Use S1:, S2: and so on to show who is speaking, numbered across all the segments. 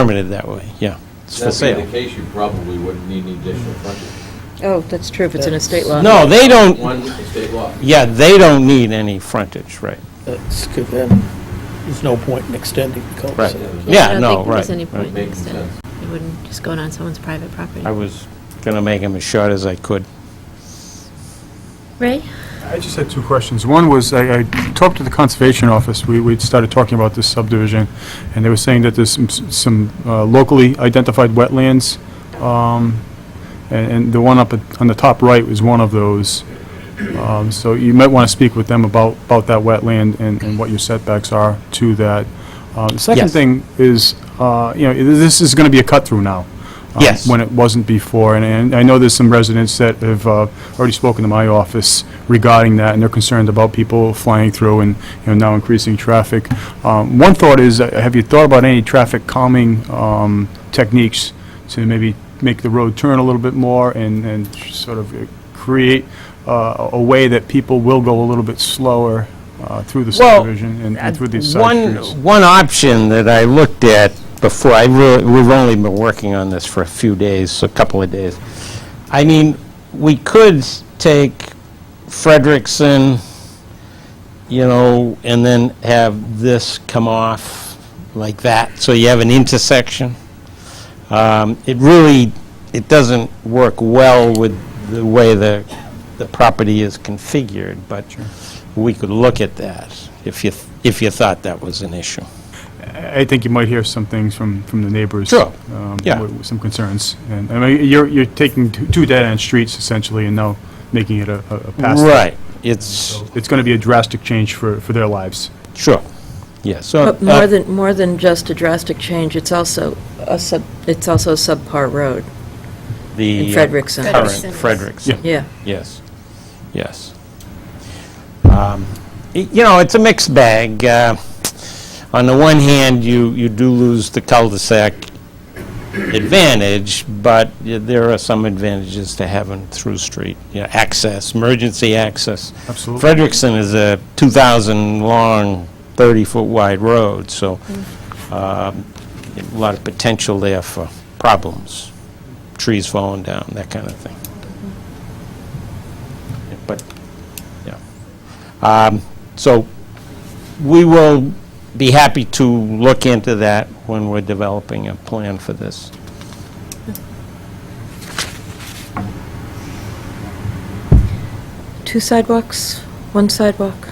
S1: permitted that way, yeah. It's for
S2: If that be
S1: sale.
S2: the case, you probably wouldn't need any additional frontage.
S3: Oh, that's true, if it's an estate lot.
S1: No, they don't,
S2: One estate lot.
S1: yeah, they don't need any frontage, right,
S4: That's good then. There's no point in extending the
S1: right.
S4: cul-de-sac.
S3: I
S1: Yeah,
S3: don't
S1: no,
S3: think there's
S1: right.
S3: any
S1: right.
S3: point.
S2: Making
S3: Instead.
S2: sense.
S3: You wouldn't just go on someone's private property.
S1: I was going to make them as short as I could.
S3: Ray?
S5: I just had two questions. One was, I I talked to the Conservation Office, we we started talking about this subdivision, and they were saying that there's some- some uh, locally identified wetlands, um, and and the one up at- on the top right was one of those. Um, So you might want to speak with them about, about that wetland and and what your setbacks are to that. Uh, The second
S1: Yes.
S5: thing is, uh, you know, i- this is going to be a cut-through now. um,
S1: Yes.
S5: When it wasn't before, and- and I know there's some residents that have uh, already spoken to my office regarding that, and they're concerned about people flying through and, you know, now increasing traffic. Um, One thought is, uh, have you thought about any traffic calming um, techniques to maybe make the road turn a little bit more and, and sort of uh, create uh, a way that people will go a little bit slower uh, through the
S1: Well,
S5: subdivision and- and through these side
S1: One,
S5: streets?
S1: one option that I looked at before, I really, we've only been working on this for a few days, a couple of days. I mean, we could take Frederickson, you know, and then have this come off like that, so you have an intersection. Um, It really, it doesn't work well with the way the, the property is configured, but we could look at that if you, if you thought that was an issue.
S5: I I think you might hear some things from, from the neighbors.
S1: Sure.
S5: um,
S1: Yeah.
S5: with- with Some concerns. And, I mean, you're, you're taking two two dead-end streets essentially and now making it a, a a pass. through.
S1: Right, it's,
S5: It's going to be a drastic change for, for their lives.
S1: sure, yeah, so.
S3: But more
S1: uh,
S3: than, more than just a drastic change, it's also a sub, it's also a subpar road in
S1: The uh,
S3: Frederickson.
S1: current
S6: Frederickson.
S1: Frederickson.
S5: Yeah.
S3: Yeah.
S1: Yes, yes. Um, y- You know, it's a mixed bag. Uh, On the one hand, you, you do lose the cul-de-sac advantage, but y- there are some advantages to having through street, you know, access, emergency access.
S5: Absolutely.
S1: Frederickson is a 2,000-long, 30-foot wide road, so um, a lot of potential there for problems, trees falling down, that kind of thing. But, yeah. Um, So, we will be happy to look into that when we're developing a plan for this.
S3: Two sidewalks, one sidewalk.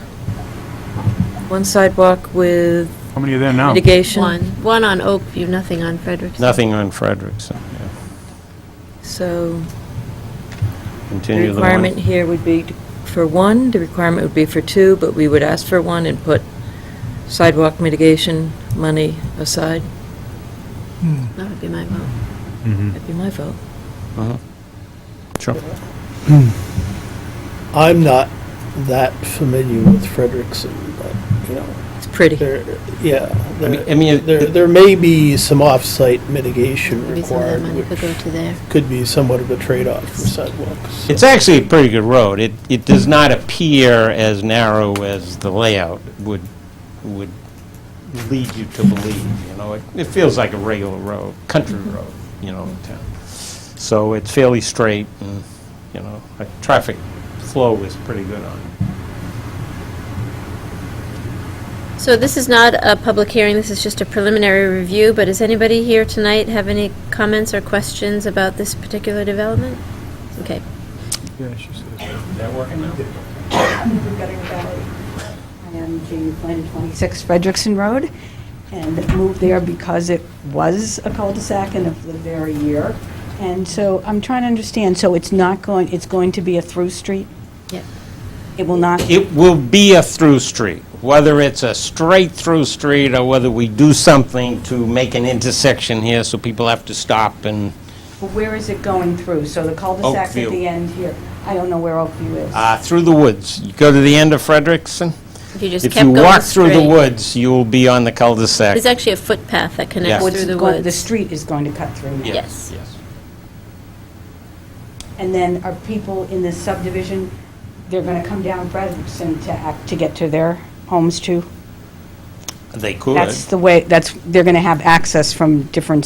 S3: One sidewalk with
S5: How many are there
S1: Oh.
S5: now?
S3: mitigation.
S6: One, one on Oakview, nothing on Frederickson.
S1: Nothing on Frederickson, yeah.
S3: So the
S1: Continue the one-
S3: requirement here would be t- for one, the requirement would be for two, but we would ask for one and put sidewalk mitigation money aside.
S6: That would be my vote.
S5: Mm-hmm.
S3: That'd be my vote.
S1: Uh-huh. Sure.
S4: I'm not that familiar with Frederickson, but, you know,
S3: It's pretty.
S4: there, yeah.
S1: I mean- I
S4: there-
S1: mean,
S4: There,
S1: it-
S4: there may be some off-site mitigation
S6: Maybe some of that
S4: required,
S6: money could go
S4: which
S6: to there.
S4: could be somewhat of a trade-off for sidewalks.
S1: It's actually a pretty good road. It, it does not appear as narrow as the layout would, would lead you to believe, you know? It it feels like a regular road, country road, you know, in town. So it's fairly straight, and, you know, like, traffic flow is pretty good on it.
S6: So this is not a public hearing, this is just a preliminary review, but does anybody here tonight have any comments or questions about this particular development? Okay.
S1: Is that working now?
S7: I am Jamie Flynn, 26 Frederickson Road, and moved there because it was a cul-de-sac and have lived there a year. And so I'm trying to understand, so it's not going, it's going to be a through street?
S6: Yeah.
S7: It will not,
S1: It will be a through street, whether it's a straight through street or whether we do something to make an intersection here so people have to stop and,
S7: but where is it going through? So the cul-de-sac's
S1: Oakview.
S7: at the end here. I don't know where Oakview is.
S1: uh, through the woods. You go to the end of Frederickson,
S6: If you just
S1: if
S6: kept
S1: you
S6: going
S1: walk through the
S6: straight-
S1: woods, you will be on the cul-de-sac.
S6: There's actually a footpath that
S1: Yeah.
S6: connects
S7: Or
S6: through
S7: it's
S6: the
S7: going-
S6: woods.
S7: The street is going to cut through now.
S6: Yes.
S1: Yes.
S7: And then are people in this subdivision, they're going to come down Frederickson to act, to get to their homes too?
S1: They could.
S7: That's the way, that's, they're going to have access from different